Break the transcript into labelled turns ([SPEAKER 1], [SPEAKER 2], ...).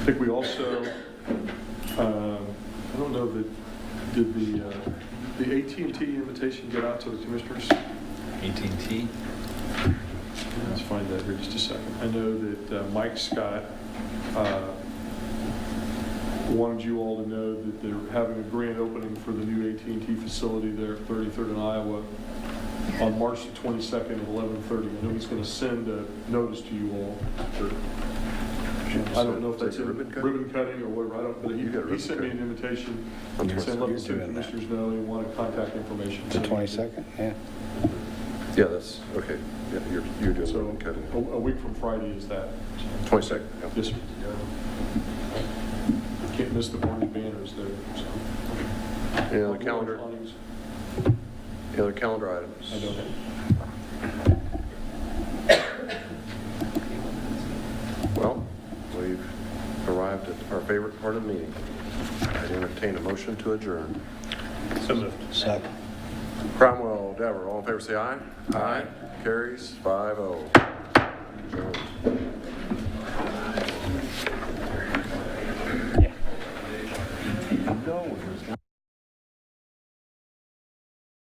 [SPEAKER 1] I think we also, um, I don't know that, did the, uh, the at and T invitation get out to the commissioners?
[SPEAKER 2] AT&T?
[SPEAKER 1] Let's find that here just a second. I know that uh, Mike Scott uh, wanted you all to know that they're having a grand opening for the new at and T facility there at 33rd and Iowa on March the 22nd at 11:30. I know he's going to send a notice to you all. I don't know if that's in
[SPEAKER 3] Ribbon cut?
[SPEAKER 1] ribbon cutting or whatever, I don't, but
[SPEAKER 3] You
[SPEAKER 1] he-
[SPEAKER 3] got
[SPEAKER 1] he
[SPEAKER 3] ribbon
[SPEAKER 1] sent me an
[SPEAKER 3] cut.
[SPEAKER 1] invitation
[SPEAKER 3] I'm
[SPEAKER 1] saying, let
[SPEAKER 3] sorry.
[SPEAKER 1] the two commissioners know they want to contact information.
[SPEAKER 4] The 22nd, yeah.
[SPEAKER 3] Yeah, that's, okay, yeah, you're, you're doing
[SPEAKER 1] So
[SPEAKER 3] ribbon cutting.
[SPEAKER 1] a a week from Friday is that.
[SPEAKER 3] 22nd, yeah.
[SPEAKER 1] Yes, sir. Can't miss the board banners there. so.
[SPEAKER 3] Any other calendar, any other calendar items?
[SPEAKER 1] I don't have.
[SPEAKER 3] Well, we've arrived at our favorite part of the meeting. I'd entertain a motion to adjourn.
[SPEAKER 2] So moved.
[SPEAKER 4] Second.
[SPEAKER 3] Cromwell, Dever, all in favor, say aye. Aye. Carries, five oh. Adjourned.